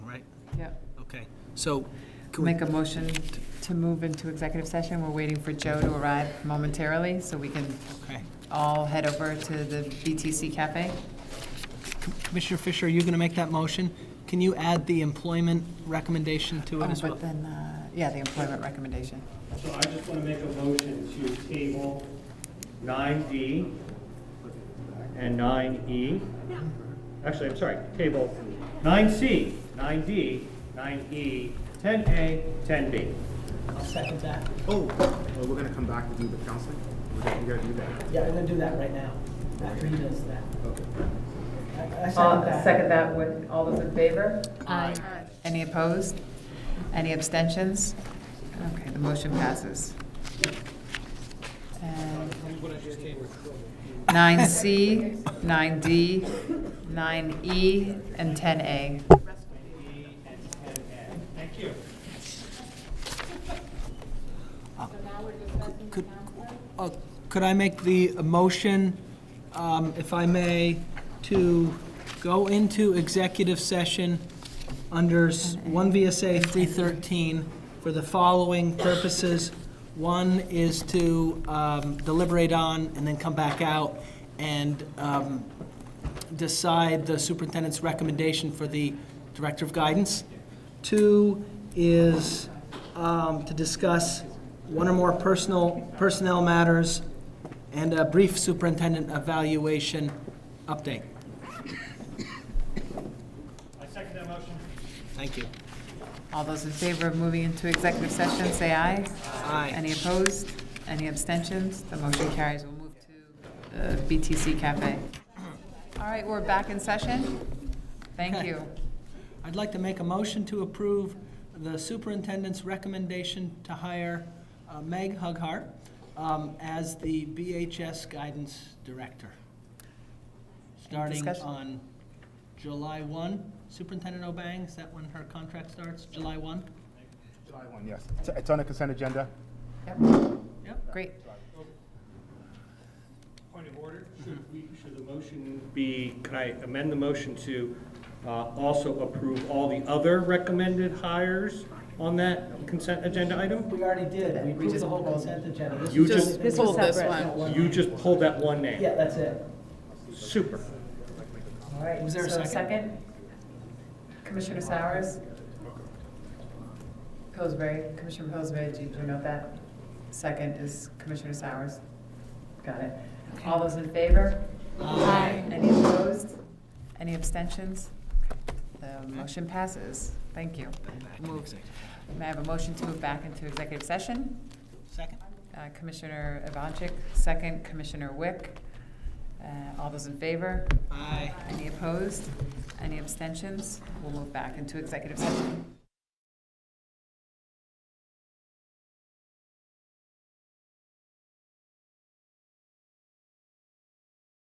Okay, so, can we, Make a motion to move into executive session. We're waiting for Joe to arrive momentarily, so we can okay. all head over to the BTC Cafe. Com- Commissioner Fisher, are you going to make that motion? Can you add the employment recommendation to Oh, it as well? but then, uh, yeah, the employment recommendation. So I just want to make a motion to table 9D and 9E. Actually, I'm sorry, table 9C, 9D, 9E, 10A, 10B. I'll second that. Oh, well, we're gonna come back to do the counseling. We're gonna, we gotta do that. Yeah, I'm going to do that right now, after he does that. Okay. I Uh, Second that, with all those in favor? Aye. Any opposed? Any abstentions? Okay, the motion passes. And 9C, 9D, 9E, E, and 10A. Could, uh, could I make the uh, motion, um, if I may, to go into executive session under s- 1 VSA 313 for the following purposes? One is to um, deliberate on and then come back out and um, decide the superintendent's recommendation for the director of guidance. Two is um, to discuss one or more personal, personnel matters and a brief superintendent evaluation update. I second that motion. Thank you. All those in favor of moving into executive session, say aye. Aye. Any opposed? Any abstentions? The motion carries. We'll move to uh, BTC Cafe. All right, we're back in session. Thank Okay. you. I'd like to make a motion to approve the superintendent's recommendation to hire uh, Meg Hughart um, as the BHS guidance director. Starting discussion? on July 1, Superintendent Obang, is that when her contract starts, July 1? July one, yes. It's- It's on the consent agenda. Yep, Yep. Great. Point of order, should we, should the motion be, can I amend the motion to uh, also approve all the other recommended hires on that consent agenda item? We already did, we approved the whole consent agenda. This You is just, This was separate. one. you just pulled that one name. Yeah, that's it. Super. All right. Was there a so second? Commissioner Sowers? Pillsbury, Commissioner Pillsbury, do you note that? Second is Commissioner Sowers. Got it. All those in favor? Aye. Any opposed? Any abstentions? The motion passes. Thank you. Moved. May I have a motion to move back into executive session? Second? Uh, Commissioner Ivanchik, second, Commissioner Wick. Uh, All those in favor? Aye. Any opposed? Any abstentions? We'll move back into executive session.